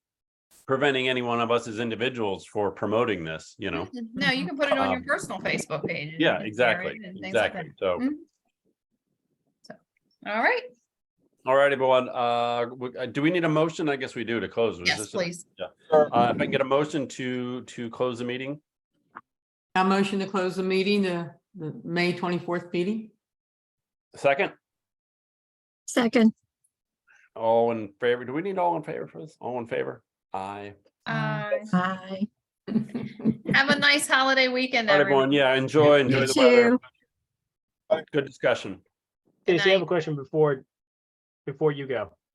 preventing any one of us as individuals for promoting this, you know? Mm-hmm. No, you can put it on your Um, personal Facebook page. and Yeah, share exactly, it and things like exactly. So, Mhm. that. All right, all right, everyone, uh, w- uh, do we need a motion? I guess we do to close. Was yes, this a- please. Uh, if I can get a motion to, to close the meeting? I motion to close the meeting, the, the May twenty-fourth meeting. Second, Second, all in favor? Do we need all in favor for this? All in favor? Aye. Uh, aye. Have a nice holiday weekend, All right, everyone, everyone. yeah, enjoy, enjoy You the weather. too. Good discussion. Stacy, I have a night. question before, before you go.